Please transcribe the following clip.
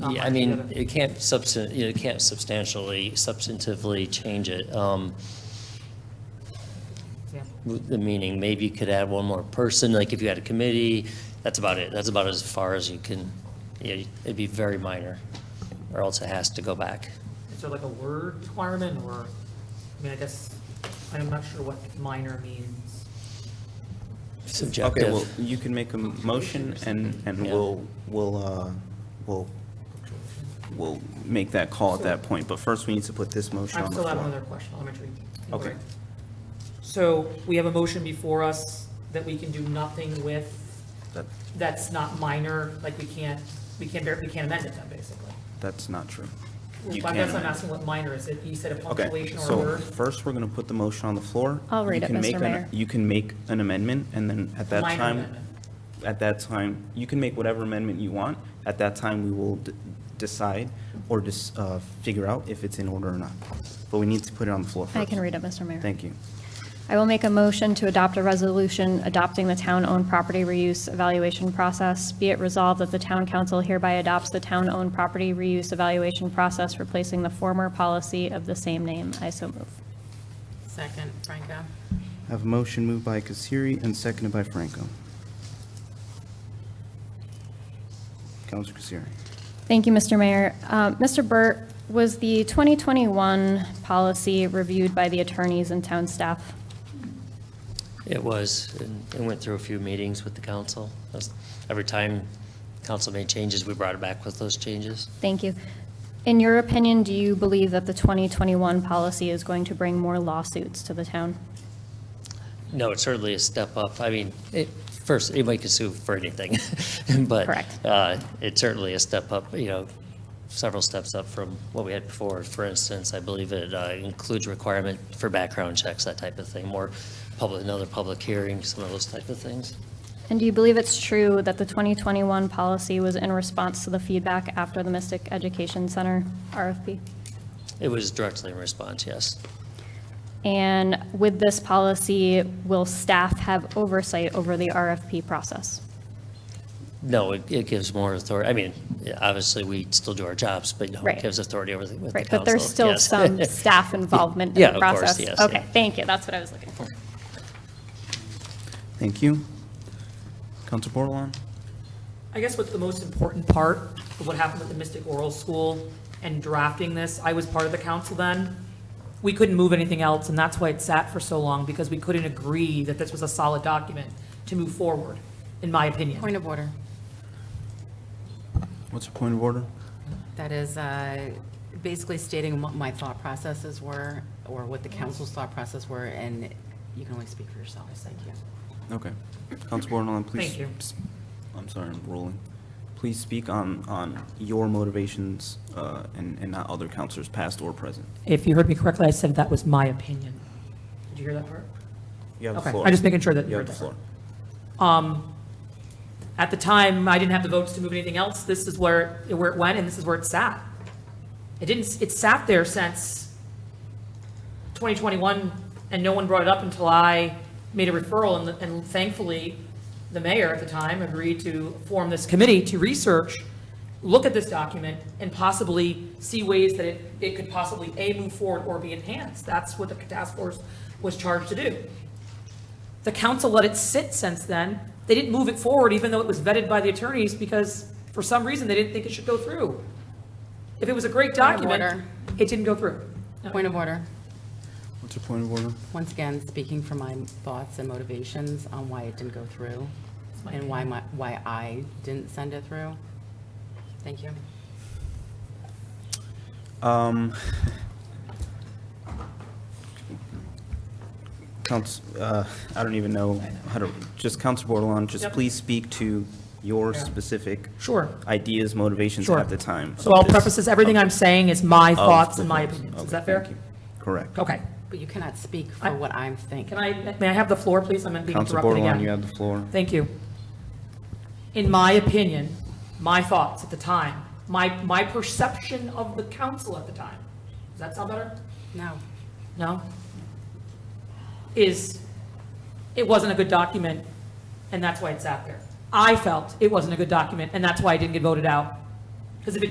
not Yeah, I like the mean, other. it can't substan, you know, it can't substantially, substantively change it. Um, example. with the meaning, maybe you could add one more person, like if you had a committee, that's about it. That's about as far as you can, yeah, it'd be very minor, or else it has to go back. Is there like a word requirement or, I mean, I guess, I'm not sure what minor means. Subjective. Okay, well, you can make a m- motion and, and Yeah. we'll, we'll, uh, we'll, we'll make that call at that point. But first, we need to put this motion I on the still have another floor. question, elementary. Okay. inquiry. So we have a motion before us that we can do nothing with, That- that's not minor, like we can't, we can't, bear- we can't amend it then, basically. That's not true. Well, You I can guess I'm amend it. asking what minor is. It, you said a Okay, punctuation or a so word? first, we're going to put the motion on the floor. I'll You read it, can Mr. make an- Mayor. You can make an amendment, and then at that Minor time, amendment. at that time, you can make whatever amendment you want. At that time, we will d- decide or just figure out if it's in order or not. But we need to put it on the floor first. I can read it, Mr. Mayor. Thank you. I will make a motion to adopt a resolution adopting the town-owned property reuse evaluation process. Be it resolved that the town council hereby adopts the town-owned property reuse evaluation process, replacing the former policy of the same name. I so move. Second, Franco. I Have a motion moved by Kasiri and seconded by Franco. Counselor Kasiri. Thank you, Mr. Mayor. Uh, Mr. Burt, was the 2021 policy reviewed by the attorneys and town staff? It was, and it went through a few meetings with the council. That's- Every time council made changes, we brought it back with those changes. Thank you. In your opinion, do you believe that the 2021 policy is going to bring more lawsuits to the town? No, it's certainly a step up. I mean, it, first, anybody can sue for anything, but. Correct. Uh, it's certainly a step up, you know, several steps up from what we had before. For instance, I believe it uh, includes requirement for background checks, that type of thing, more public, another public hearing, some of those type of things. And do you believe it's true that the 2021 policy was in response to the feedback after the Mystic Education Center RFP? It was directly in response, yes. And with this policy, will staff have oversight over the RFP process? No, it, it gives more authority. I mean, yeah, obviously, we still do our jobs, but you know, it Right. gives authority over the, with the Right, council. but there's still yes. some staff involvement Yeah, in of the course, process? yes, Okay, yeah. thank you, that's what I was looking for. Thank you. Counselor Bordelon? I guess what's the most important part of what happened with the Mystic Oral School and drafting this, I was part of the council then. We couldn't move anything else, and that's why it sat for so long, because we couldn't agree that this was a solid document to move forward, in my opinion. Point of order. What's your point of order? That is uh, basically stating what my thought processes were, or what the council's thought process were, and you can only speak for yourself. Thank you. Okay. Counselor Bordelon, please. Thank you. s- I'm sorry, I'm rolling. Please speak on, on your motivations uh, and, and not other counselors, past or present. If you heard me correctly, I said that was my opinion. Did you hear that part? You have the Okay, floor. I'm just making sure that You you have heard the that. floor. At the time, I didn't have the votes to move anything else. This is where, where it went, and this is where it sat. It didn't, it sat there since 2021, and no one brought it up until I made a referral, and- and thankfully, the mayor at the time agreed to form this committee to research, look at this document, and possibly see ways that it, it could possibly, A, move forward or be enhanced. That's what the task force was charged to do. The council let it sit since then. They didn't move it forward, even though it was vetted by the attorneys, because for some reason, they didn't think it should go through. If it was a great Point of document, order. it didn't go through. No. Point of order. What's your point of order? Once again, speaking for my thoughts and motivations on why it didn't go through, and why my, why I didn't send it through. Thank you. Um, Counts, uh, I don't even know how to, just Counsel Bordelon, just Yep. please speak to your specific Sure. ideas, motivations Sure. at the time. So I'll of this- preface this, everything I'm saying is my of thoughts the and my things. opinions. Is Okay, that fair? thank you. Correct. Okay. But you cannot speak I- for what I'm thinking. Can I, may I have the floor, please? I'm being Counsel interrupted Bordelon, you again. have the floor. Thank you. In my opinion, my thoughts at the time, my, my perception of the council at the time. Does that sound better? No. no, is it wasn't a good document, and that's why it sat there. I felt it wasn't a good document, and that's why it didn't get voted out. Because if it did